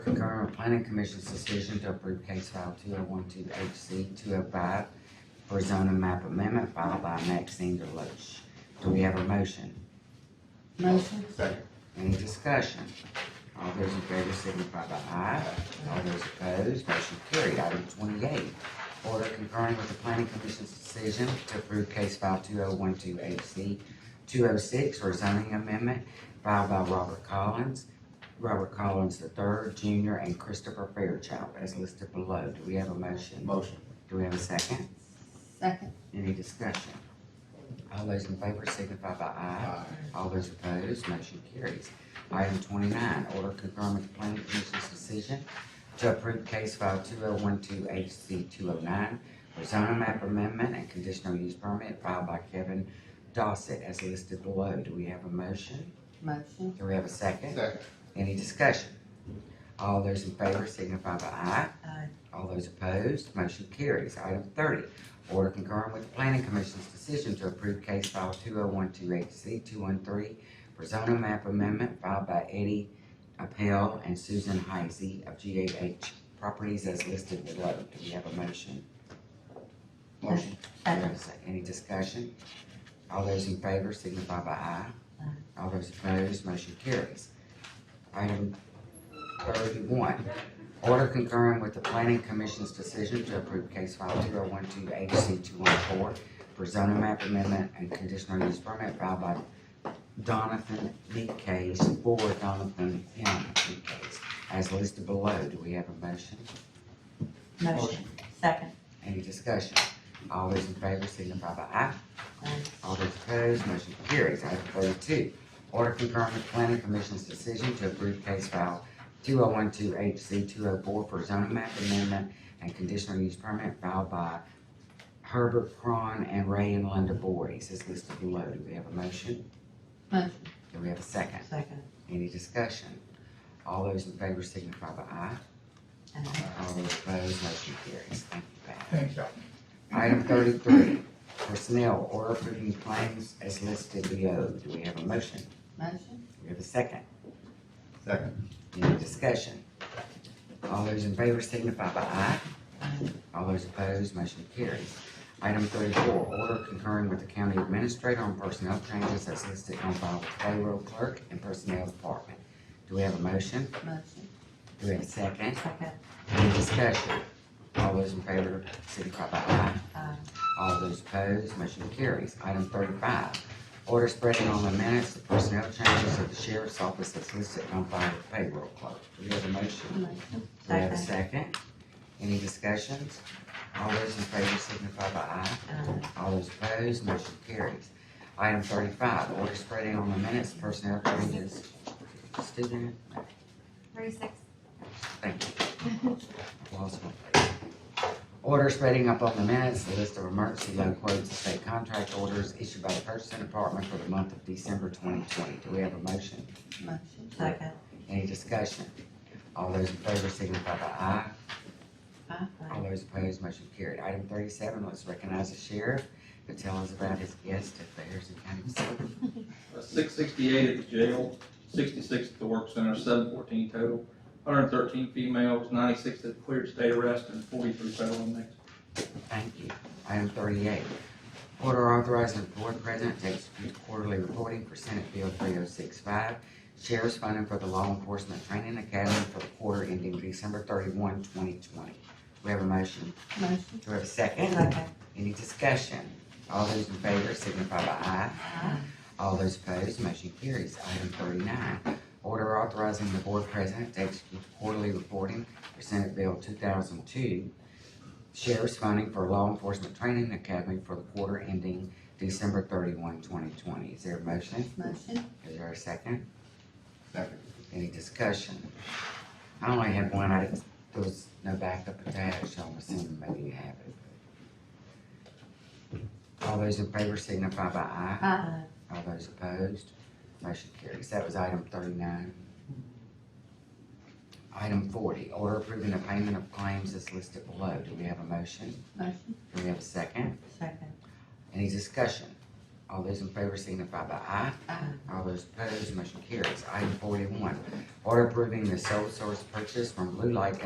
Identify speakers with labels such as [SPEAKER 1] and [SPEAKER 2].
[SPEAKER 1] Department Planning Commission's decision to approve case file two oh one two H C two oh five for zoning map amendment filed by Maxine Deloche. Do we have a motion?
[SPEAKER 2] Motion.
[SPEAKER 3] Second.
[SPEAKER 1] Any discussion? All those in favor signify by aye. All those opposed, motion carried. Item twenty-eight, order concurring with the planning commission's decision to approve case file two oh one two HC two oh six for zoning amendment filed by Robert Collins, Robert Collins III, Jr., and Christopher Fairchild as listed below. Do we have a motion?
[SPEAKER 3] Motion.
[SPEAKER 1] Do we have a second?
[SPEAKER 2] Second.
[SPEAKER 1] Any discussion? All those in favor signify by aye. All those opposed, motion carries. Item twenty-nine, order concurring with the planning commission's decision to approve case file two oh one two HC two oh nine for zoning map amendment and conditional use permit filed by Kevin Dossett as listed below. Do we have a motion?
[SPEAKER 2] Motion.
[SPEAKER 1] Do we have a second?
[SPEAKER 3] Second.
[SPEAKER 1] Any discussion? All those in favor signify by aye.
[SPEAKER 2] Aye.
[SPEAKER 1] All those opposed, motion carries. Item thirty, order concurring with the planning commission's decision to approve case file two oh one two eight C two one three for zoning map amendment filed by Eddie Appel and Susan Heisey of G A H Properties as listed below. Do we have a motion?
[SPEAKER 3] Motion.
[SPEAKER 1] Do we have a sec- Any discussion? All those in favor signify by aye.
[SPEAKER 2] Aye.
[SPEAKER 1] All those opposed, motion carries. Item thirty-one, order concurring with the planning commission's decision to approve case file two oh one two HC two one four for zoning map amendment and conditional use permit filed by Donathan B. Case for Donathan M. B. Case as listed below. Do we have a motion?
[SPEAKER 2] Motion. Second.
[SPEAKER 1] Any discussion? All those in favor signify by aye.
[SPEAKER 2] Aye.
[SPEAKER 1] All those opposed, motion carries. Item thirty-two, order concurring with planning commission's decision to approve case file two oh one two HC two oh four for zoning map amendment and conditional use permit filed by Herbert Cron and Ray and Linda Boyes is listed below. Do we have a motion?
[SPEAKER 2] Motion.
[SPEAKER 1] Do we have a second?
[SPEAKER 2] Second.
[SPEAKER 1] Any discussion? All those in favor signify by aye.
[SPEAKER 2] Aye.
[SPEAKER 1] All those opposed, motion carries. Thank you, Pat.
[SPEAKER 3] Thanks, y'all.
[SPEAKER 1] Item thirty-three, personnel, order approving claims as listed below. Do we have a motion? Do
[SPEAKER 2] Motion.
[SPEAKER 1] we have a second?
[SPEAKER 3] Second.
[SPEAKER 1] Any discussion? All those in favor signify by aye.
[SPEAKER 2] Aye.
[SPEAKER 1] All those opposed, motion carries. Item thirty-four, order concurring with the county administrator on personnel changes as listed on file with payroll clerk and personnel department. Do we have a motion?
[SPEAKER 2] Motion.
[SPEAKER 1] Do we have a second?
[SPEAKER 2] Second.
[SPEAKER 1] Any discussion? All those in favor signify by aye.
[SPEAKER 2] Aye.
[SPEAKER 1] All those opposed, motion carries. Item thirty-five, order spreading on the minutes the personnel changes of the sheriff's office as listed on file with payroll clerk. Do we have a motion?
[SPEAKER 2] Motion.
[SPEAKER 1] Do we have a
[SPEAKER 2] Second.
[SPEAKER 1] second? Any discussions? All those in favor signify by aye.
[SPEAKER 2] Aye.
[SPEAKER 1] All those opposed, motion carries. Item thirty-five, order spreading on the minutes the personnel changes. Student,
[SPEAKER 4] Thirty-six.
[SPEAKER 1] thank you. Lost my place. Order spreading up on the minutes, the list of emergency loan quotes and state contract orders issued by the purchasing department for the month of December twenty twenty. Do we have a motion?
[SPEAKER 2] Motion. Second.
[SPEAKER 1] Any discussion? All those in favor signify by aye.
[SPEAKER 2] Aye.
[SPEAKER 1] All those opposed, motion carried. Item thirty-seven, let's recognize the sheriff to tell us about his guest at the Harrison County Facility.
[SPEAKER 5] six sixty-eight at the jail, sixty-six at the work center, seven fourteen total, hundred and thirteen females, ninety-six that cleared state arrest, and forty-three federal inmates.
[SPEAKER 1] Thank you. Item thirty-eight, order authorizing the board president to execute quarterly reporting for Senate Bill three oh six five, sheriff's funding for the Law Enforcement Training Academy for the quarter ending December 31, 2020. Do we have a motion?
[SPEAKER 2] Motion.
[SPEAKER 1] Do we have a second?
[SPEAKER 2] Second.
[SPEAKER 1] Any discussion? All those in favor signify by aye.
[SPEAKER 2] Aye.
[SPEAKER 1] All those opposed, motion carries. Item thirty-nine, order authorizing the board president to execute quarterly reporting for Senate Bill two thousand two, sheriff's funding for law enforcement training academy for the quarter ending December 31, 2020. Is there a motion?
[SPEAKER 2] Motion.
[SPEAKER 1] Is there a second?
[SPEAKER 3] Second.
[SPEAKER 1] Any discussion? I only had one, I, there was no backup attached, so I'm assuming maybe you have it. All those in favor signify by aye.
[SPEAKER 2] Aye.
[SPEAKER 1] All those opposed, motion carries. That was item thirty-nine. Item forty, order approving the payment of claims as listed below. Do we have a motion?
[SPEAKER 2] Motion.
[SPEAKER 1] Do we have a second?
[SPEAKER 2] Second.
[SPEAKER 1] Any discussion? All those in favor signify by aye.
[SPEAKER 2] Aye.
[SPEAKER 1] All those opposed, motion carries. Item forty-one, order approving the sole source purchase from Blue Light